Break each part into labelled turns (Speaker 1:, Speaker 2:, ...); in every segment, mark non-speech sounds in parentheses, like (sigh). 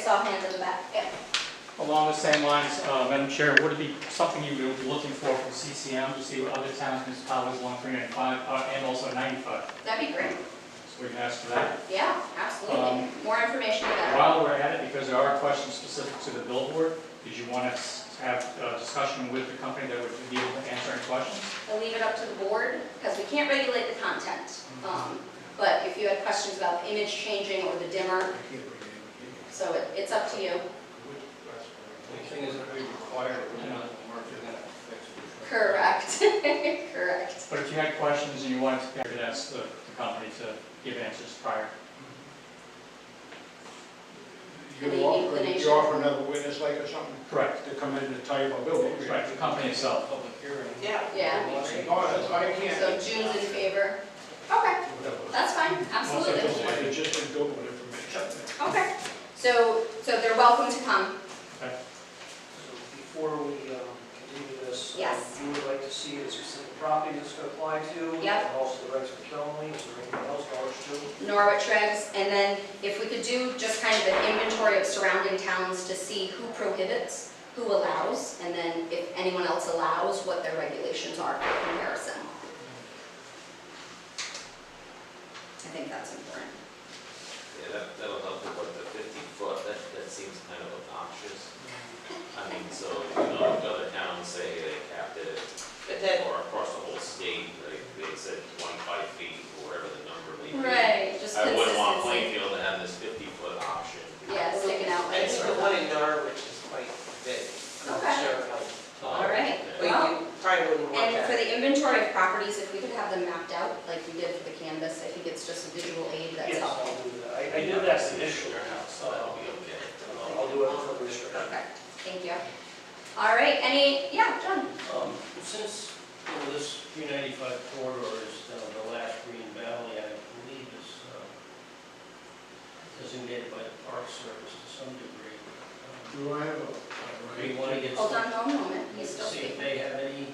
Speaker 1: saw hands in the back. Yeah.
Speaker 2: Along the same lines, uh, Madam Chair, would it be something you would be looking for from CCM to see what other towns, municipalities along 395 uh, and also 95?
Speaker 1: That'd be great.
Speaker 2: So we can ask for that.
Speaker 1: Yeah, absolutely.
Speaker 2: Um,
Speaker 1: More information about
Speaker 2: While we're at it, because there are questions specific to the billboard, did you want us to have a discussion with the company that would be able to answer any questions?
Speaker 1: it. We'll leave it up to the board because we can't regulate the content. Um, But if you had questions about the image changing or the dimmer, so it- it's up to you. (laughs)
Speaker 3: The thing is that we require, you know, the market to fix it.
Speaker 1: Correct, (laughs) correct.
Speaker 2: But if you had questions and you wanted to, you could ask the the company to give answers prior.
Speaker 4: You offer, you offer another witness like or something
Speaker 2: Correct.
Speaker 4: to come in and tell you about building.
Speaker 2: Right, the company itself.
Speaker 3: Public hearing.
Speaker 5: Yeah.
Speaker 1: Yeah.
Speaker 3: Unless you-
Speaker 4: Oh, that's, I
Speaker 1: So
Speaker 4: can't.
Speaker 1: June's in favor. Okay, that's fine,
Speaker 4: Also,
Speaker 1: absolutely.
Speaker 4: just like, it's just a building information.
Speaker 1: Okay, so, so they're welcome to come.
Speaker 5: So Before we um, continue this. uh,
Speaker 1: Yes.
Speaker 5: You would like to see the specific property this could apply to.
Speaker 1: Yep.
Speaker 5: And also the rights of Killenly, is there anything else, Norwich too?
Speaker 1: Norwich regs, and then if we could do just kind of an inventory of surrounding towns to see who prohibits, who allows, and then if anyone else allows, what their regulations are for comparison. I think that's important.
Speaker 6: Yeah, that, that'll help with what the fifty foot, that, that seems kind of obnoxious. I mean, so, you know, if other towns say they capped it,
Speaker 7: But that,
Speaker 6: or across the whole state, like, they said twenty-five feet, or whatever the number may be.
Speaker 1: Just
Speaker 6: I wouldn't want
Speaker 1: consistency.
Speaker 6: Plainfield to have this fifty foot option.
Speaker 1: Yeah, sticking out
Speaker 7: I
Speaker 1: like
Speaker 7: think the one in Norwich is quite big. I'm not
Speaker 1: Okay.
Speaker 7: sure how-
Speaker 6: Um,
Speaker 1: All right.
Speaker 6: yeah.
Speaker 7: But
Speaker 1: Well,
Speaker 7: you probably wouldn't want
Speaker 1: And for
Speaker 7: that.
Speaker 1: the inventory of properties, if we could have them mapped out, like we did for the canvas, I think it's just a visual aid that's
Speaker 5: Yes, I'll
Speaker 1: helpful.
Speaker 5: do that. I, I did that initially.
Speaker 6: Your house, so that'll be okay.
Speaker 5: I'll do it for the district.
Speaker 1: Perfect, thank you. All right, any, yeah, John?
Speaker 3: Um, Since, you know, this 395 corridor is uh, the last Green Valley, I believe is uh, designated by the Park Service to some degree. Um,
Speaker 4: Do I have a,
Speaker 3: Do you
Speaker 4: a
Speaker 3: want to get
Speaker 1: Hold
Speaker 3: some,
Speaker 1: on one moment, he's still
Speaker 3: see if
Speaker 1: speaking.
Speaker 3: they have any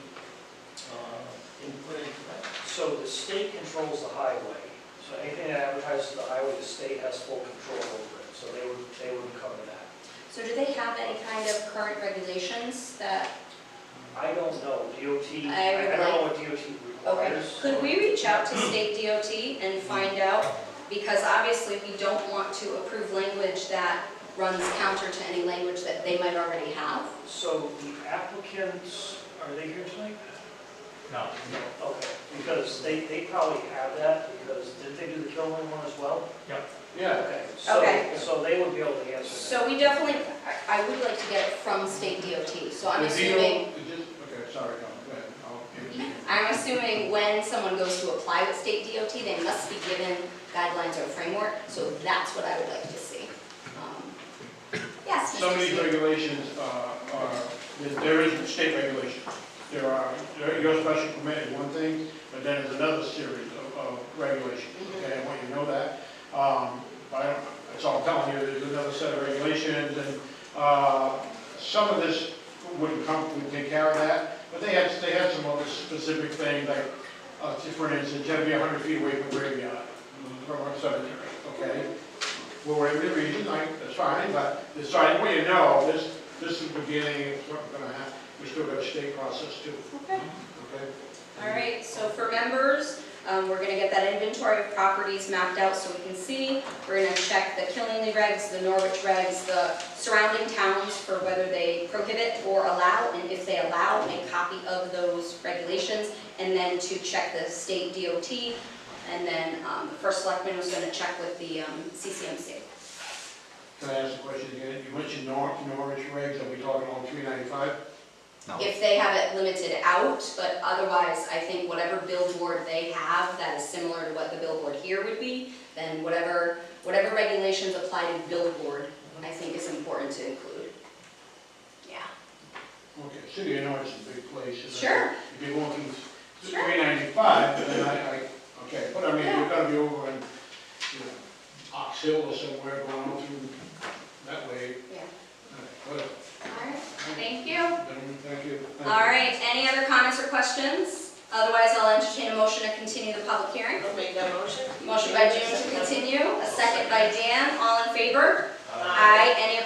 Speaker 3: uh, input into that?
Speaker 5: So the state controls the highway, so anything that advertises the highway, the state has full control over it, so they would, they would cover that.
Speaker 1: So do they have any kind of current regulations that,
Speaker 5: I don't know, DOT,
Speaker 1: I would
Speaker 5: I I don't know what DOT
Speaker 1: okay,
Speaker 5: requires.
Speaker 1: could we reach out to state DOT and find out? Because obviously, we don't want to approve language that runs counter to any language that they might already have.
Speaker 5: So the applicants, are they here tonight?
Speaker 2: No.
Speaker 5: Okay, because they, they probably have that, because didn't they do the Kilman one as well?
Speaker 4: yeah,
Speaker 5: Okay. so-
Speaker 1: Okay.
Speaker 5: So they would be able to answer that.
Speaker 1: So we definitely, I I would like to get it from state DOT, so I'm
Speaker 4: The deal-
Speaker 1: assuming,
Speaker 4: it just- Okay, sorry, no, go ahead, I'll give it to you.
Speaker 1: I'm assuming when someone goes to apply with state DOT, they must be given guidelines or framework, so that's what I would like to see. Um, Yes, Mr.
Speaker 4: Some of these
Speaker 1: Smith.
Speaker 4: regulations uh, are, there- there is state regulation. There are, there- your special permit is one thing, but then there's another series of- of regulations, okay? I want you to know that. Um, I don't, that's all I'm telling you, there's another set of regulations, and uh, some of this wouldn't come, would take care of that, but they had, they had some other specific things, like, uh, for instance, you have to be 100 feet away from graveyard, from a cemetery, okay? Well, whatever the reason, like, that's fine, but it's fine, we know, this, this is the beginning, it's not gonna happen, we still got a state process too,
Speaker 1: Okay.
Speaker 4: okay?
Speaker 1: All right, so for members, um, we're gonna get that inventory of properties mapped out so we can see. We're gonna check the Killingley regs, the Norwich regs, the surrounding towns for whether they prohibit or allow, and if they allow, make copy of those regulations, and then to check the state DOT, and then, um, the first selectman was gonna check with the, um, CCMC.
Speaker 4: Can I ask a question again? You mentioned Nor, Norwich regs, are we talking on three ninety-five?
Speaker 1: If they have it limited out, but otherwise, I think whatever billboard they have that is similar to what the billboard here would be, then whatever, whatever regulations apply to billboard, I think is important to include. Yeah.
Speaker 4: Okay, city of Norwich is a big place. and I-
Speaker 1: Sure.
Speaker 4: If you're going to
Speaker 1: Sure.
Speaker 4: three ninety-five, then I, I, okay, but I mean,
Speaker 1: Yeah.
Speaker 4: you're gonna be over in, you know, Ox Hill or somewhere going on through that way.
Speaker 1: Yeah.
Speaker 4: All right, whatever.
Speaker 1: All right, thank you.
Speaker 4: Gentlemen, Thank you. Thank you.
Speaker 1: All right, any other comments or questions? Otherwise, I'll entertain a motion to continue the public hearing.
Speaker 7: I'll make that motion.
Speaker 1: Motion by June to continue, a second by Dan, all in favor?
Speaker 3: Uh,
Speaker 1: Aye, any